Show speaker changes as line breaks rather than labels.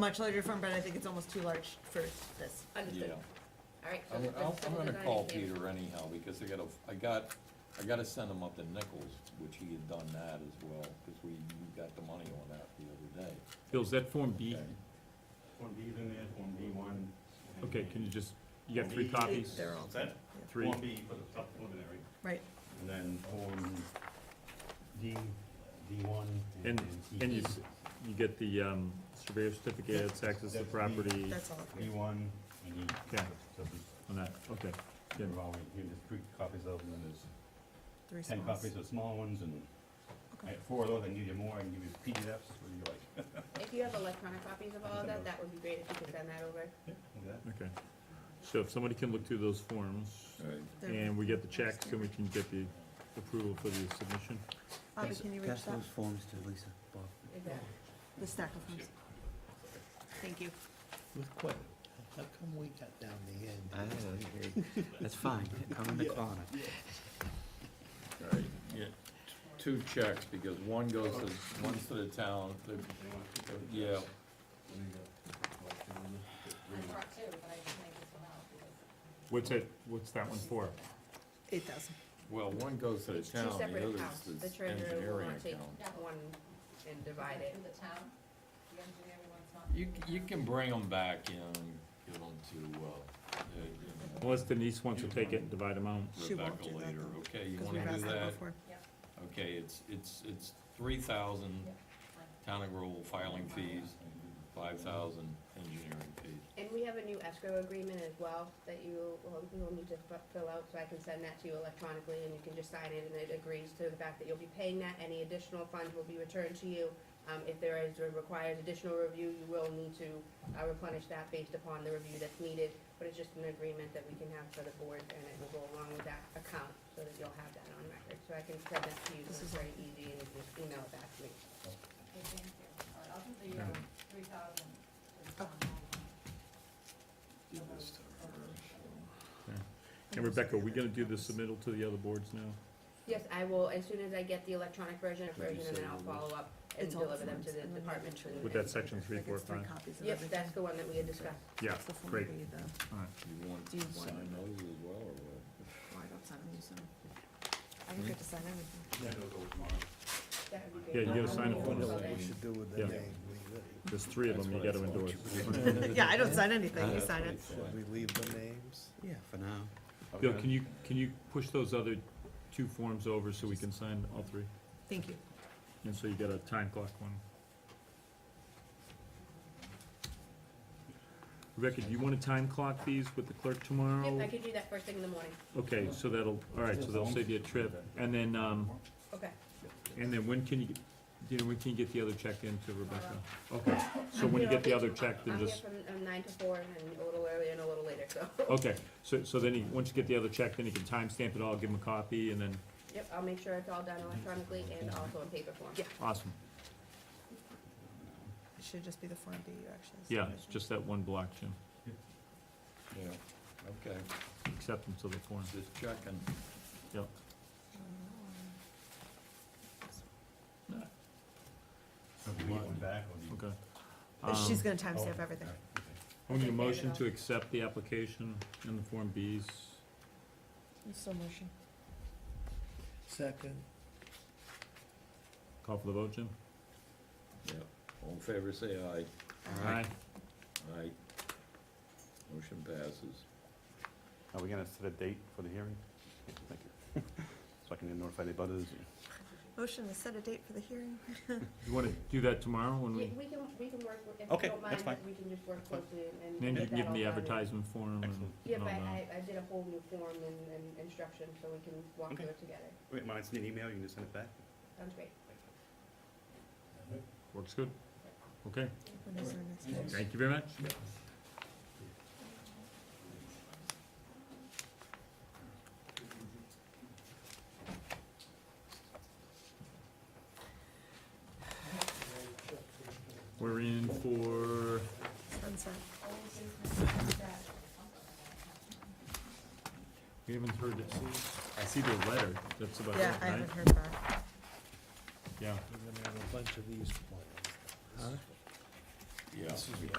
much larger firm, but I think it's almost too large for this.
Understood.
Yeah,
All right. so
I'm,
that's-
I'm,
that's
I'm
what
gonna
we're
call
do here.
Peter anyhow, because I gotta, I got, I gotta send him up to Nichols, which he had done that as well, cause we, we got the money on that the other day.
Bill, is that Form B?
Okay.
Form B's in there, Form B one.
Okay, can you just, you got three copies?
They're all,
Set,
Three,
Form B for the top preliminary,
right,
and then Form D, D one.
and, and you,
E.
s- you get the, um, surveyor certificate, it's access to
That's me.
property
that's all.
D one and E.
Yeah.
So we-
on that, okay. Yeah.
We're all, here, there's three copies of them, and there's
Three
ten
smalls.
copies of small ones, and I
Okay.
have four of those, I can give you more, I can give you PDFs, what do you like?
If you have electronic copies of all of that, that would be great if you could send that over.
Look at that.
Okay, so if somebody can look through those forms,
They're-
and we get the checks, then we can get the approval for the submission.
Avi, can you reach
Pass
that,
those forms to Lisa, Bob.
Is that-
the stack of forms? Thank you.
With quit, how come we got down the end?
Ah, okay. That's fine, I'm in the corner.
Right, yeah, two checks, because one goes to, one's to the town, the, yeah,
What's it, what's that one for?
Eight thousand.
well, one goes to the
It's two
town, the
separate
other's
accounts. The
the
treasurer will
engineering
want to take
account.
one and divide it.
the town, the engineering one's not.
You, c- you can bring them back and give them to, uh, uh, you know,
Unless Denise wants to take it and divide them out.
She won't
Rebecca
do that,
later,
though,
okay, you
Because we've
wanna
asked
do
that
that?
before.
Okay, it's, it's, it's three thousand town and rural filing fees, five thousand engineering fees.
And we have a new escrow agreement as well that you will, you will need to fi- fill out, so I can send that to you electronically and you can just sign it and it agrees to the fact that you'll be paying that. Any additional funds will be returned to you. Um, if there is, or requires additional review, you will need to uh, replenish that based upon the review that's needed. But it's just an agreement that we can have for the board and it will go along with that account so that you'll have that on record. So I can send that to you, so it's very easy and you can just email it back to me.
Okay, thank you. All right, I'll do the, um, three thousand.
Give this to her.
And Rebecca, are we gonna do the submittal to the other boards now?
Yes, I will, as soon as I get the electronic version,
you
version, and
send
then I'll
those?
follow up and
It's all the
deliver them to
forms,
the
and then
department.
we'll
and-
With that section three,
Like
four,
it's three
five?
copies of
Yep,
everything.
that's the one that we had discussed.
Yeah,
It's the Form
great,
B, the-
all right.
You want
Do you
to
want
sign
it?
those as well, or what?
Well, I don't sign them, you sign them. I
Hmm?
don't get to sign everything.
Send those over tomorrow.
That would be
Yeah,
great.
you gotta sign
I
it
don't
for
know
us.
what we should do with
Yeah.
that name, we really-
There's three of them you gotta endorse.
Yeah, I don't sign anything,
Uh,
you
That's
sign
what I
it.
thought.
Should we leave the names? Yeah, for now.
Bill, can you, can you push those other two forms over so we can sign all three?
Thank you.
And so you got a time clock one. Rebecca, do you wanna time clock these with the clerk tomorrow?
Yep, I could do that first thing in the morning.
Okay, so that'll, all right, so that'll save you a trip. And then, um,
Okay.
and then when can you, get- you know, when can you get the other check in to Rebecca? Okay, so when you
I'm here
get the
all
other
day.
check, then just,
I'm here from um, nine to four, and a little earlier and a little later, so.
okay, so, so then you, once you get the other check, then you can timestamp it all, give them a copy, and then,
Yep, I'll make sure it's all done electronically and also in paper form.
Yeah.
awesome.
It should just be the Form B you actually.
Yeah,
sign,
it's
isn't it?
just that one block, Jim,
Yeah, okay,
acceptance of the form,
just checking.
yep.
Oh,
So do you want one back, or do you?
Okay.
But She's gonna
Um,
timestamp everything.
All right, okay.
I need a motion to accept the application in the Form Bs.
So motion.
Second,
Call for the vote, Jim?
Yeah, all in favor, say aye.
Aye.
Aye. Motion passes.
Are we gonna set a date for the hearing? Thank you. So I can notify the butters.
Motion to set a date for the hearing.
You wanna do that tomorrow when
Yeah, we
we,
can, we can work, with- if
Okay,
you don't mind,
that's fine.
we can just work closely and.
then you
get
can
that
give them the
all done and-
advertisement uh, form and
Excellent.
Yep,
and all
I,
that.
I, I did a whole new form and, and instruction, so we can walk
Okay.
through it together.
Wait, when I send you an email, you can just send it back?
Sounds great.
Works good? Okay,
When is our next meeting?
thank you very much. We're in for
Sunset.
We haven't heard it. I see the letter, that's about it,
Yeah, I
right?
haven't heard back.
Yeah,
we're gonna have a bunch of these plans.
yeah.
This is-